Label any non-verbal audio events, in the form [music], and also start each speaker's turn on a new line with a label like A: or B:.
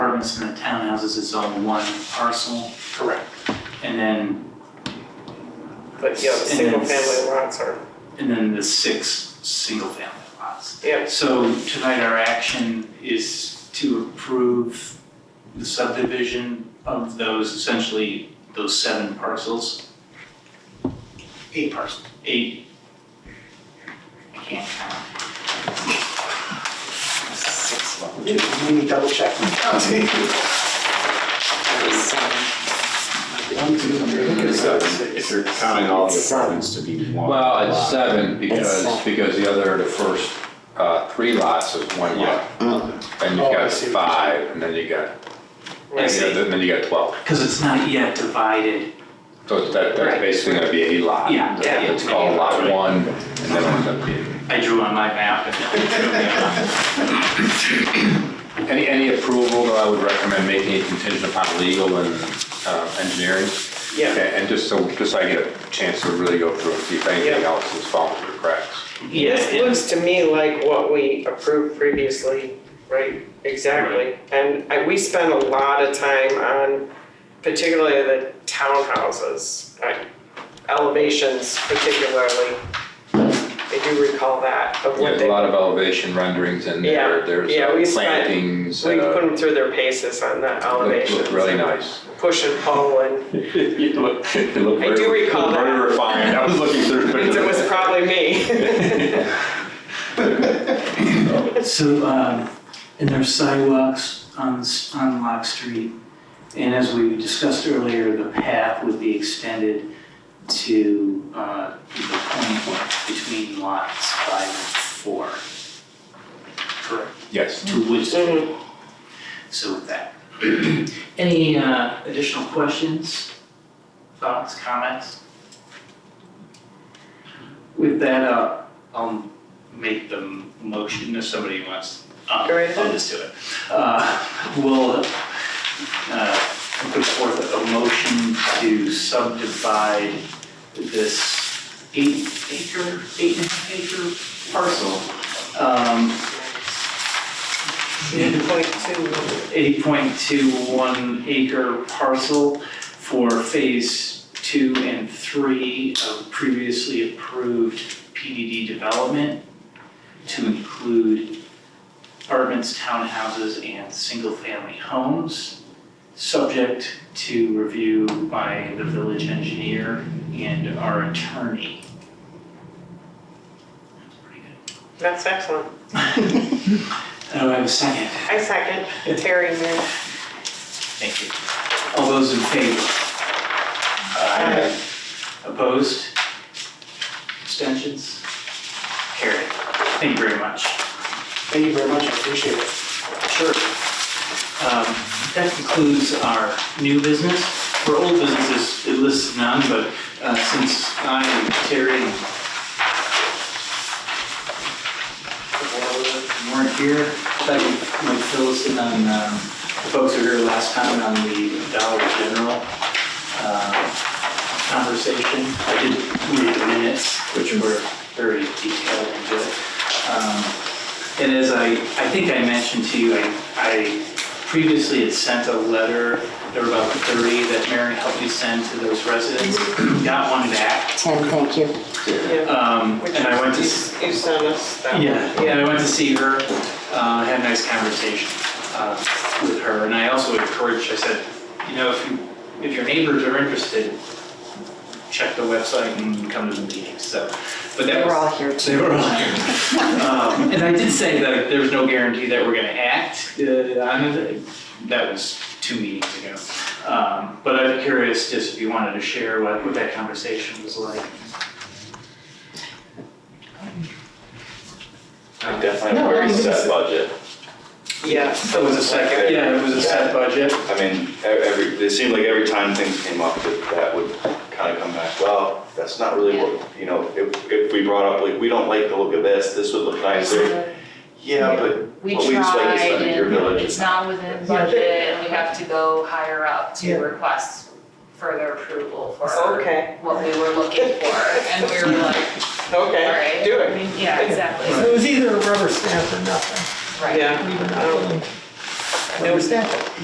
A: houses is all one parcel,
B: Correct.
A: and then,
B: But yeah, the
A: And
B: single
A: it's-
B: family lots are,
A: and then the six single-family lots.
B: yeah,
A: So tonight our action is to approve the subdivision of those, essentially those seven parcels. Eight parcels. Eight. I can't count.
C: Let me double check. One, two, three, four, five,
D: uh, If
C: six.
D: you're counting all the apartments to be one.
E: Well, it's uh,
D: lot.
E: seven
C: It's
E: because,
C: seven.
E: because the other, the first uh, three lots is one lot. And
C: Oh,
E: you've
C: I
E: got
C: see what you're
E: five, and then you got,
A: I
E: and
A: see.
E: then then you got 12.
A: Because it's not yet divided.
E: So it's- that, that's
A: Right.
E: basically gonna be a lot.
A: Yeah, yeah, yeah.
E: It's called lot one, and then it ends up being.
A: I drew on my map and [laughs] then.
E: Any, any approval, though, I would recommend making it contingent upon legal and uh, engineering. And
B: yeah.
E: and just so, just so I get a chance to really go through and see if anything
B: Yeah.
E: else is falling through the cracks.
A: Yeah,
B: This
A: it-
B: looks to me like what we approved previously, right? Exactly. And I, we spent a lot of time on particularly the townhouses, uh, elevations particularly. I do recall that of
E: Yeah,
B: what
E: There's a
B: they,
E: lot of elevation renderings in there,
B: Yeah,
E: there's
B: yeah, we
E: uh,
B: spent-
E: plantings.
B: we
E: uh,
B: put them through their paces on that
E: Look-
B: elevation.
E: Look really [laughs] nice.
B: Push and pull and
E: It looked, it looked
B: I do
E: very-
B: recall
E: looked Very
B: that.
E: [laughs] refined, I was looking through.
B: it was probably
A: [laughs]
B: me.
A: So, um, and there's sidewalks on, s- on Lock Street. And as we discussed earlier, the path would be extended to, uh, the point between lots five and four. Correct.
E: Yes,
A: To Wood Street.
B: Mhm.
A: So with that. [clears throat] Any, uh, additional questions, thoughts, comments? With that, uh, I'll make the m- motion if somebody wants. uh,
B: Go right ahead.
A: I'll just do it. Uh, we'll, uh, put forth a motion to subdivide this eight acre, eight and a half acre parcel. Um,
B: Point two.
A: 8.21 acre parcel for Phase 2 and 3 of previously approved PDD development to include apartments, townhouses, and single-family homes, subject to review by the village engineer and our attorney. That's pretty good.
B: That's excellent.
A: Oh, I have a second.
B: I second Terry Moon.
A: Thank you. All those in favor?
B: Aye.
A: Opposed? Abstentions? Carried. Thank you very much.
C: Thank you very much, I appreciate it.
A: Sure. Um, That concludes our new business. For old businesses, it lists none, but uh, since I and Terry and weren't here, I thought you might fill us in on, um, the folks who were here last time on the Dollar General uh, conversation. I did read the minutes, which were very detailed and good. Um, and as I, I think I mentioned to you, I, I previously had sent a letter, there were about 30 that Mary helped you send to those residents. Got one back,
F: Ten, thank you.
B: Yeah.
A: um,
B: Which
A: and I went to.
B: you
A: s-
B: you sent us that. one.
A: yeah, and I went to see her, uh, had a nice conversation uh, with her, and I also encouraged, I said, you know, if you, if your neighbors are interested, check the website and come to the meetings, so. But that
F: They were
A: was-
F: all here too.
A: They were all here. Um, And I did say that there's no guarantee that we're gonna act uh, on it, that was two meetings ago. Um, But I'm curious, just if you wanted to share what, what that conversation was like.
D: I'm Definitely a very set budget.
B: Yeah,
A: It
B: so
A: was a second, yeah, it was a set budget.
D: I mean, e- every, it seemed like every time things came up, that that would kind of come back, well, that's not really what, you know, if, if we brought up, like, we don't like the look of this, this would look nicer. Yeah, but
G: We
D: Well, we just like
G: tried
D: to spend your
G: and
D: village.
G: it's not within budget and we have to go higher up to request further approval for
B: Okay.
G: what we were looking for. And we were
D: [laughs]
G: like,
B: Okay,
G: Alright.
B: do
G: I
B: it.
G: mean, yeah, exactly,
A: Right.
G: right.
C: So it was either a rubber stamp or nothing,
B: Yeah.
C: even
B: nothing.
C: Rubber stamp.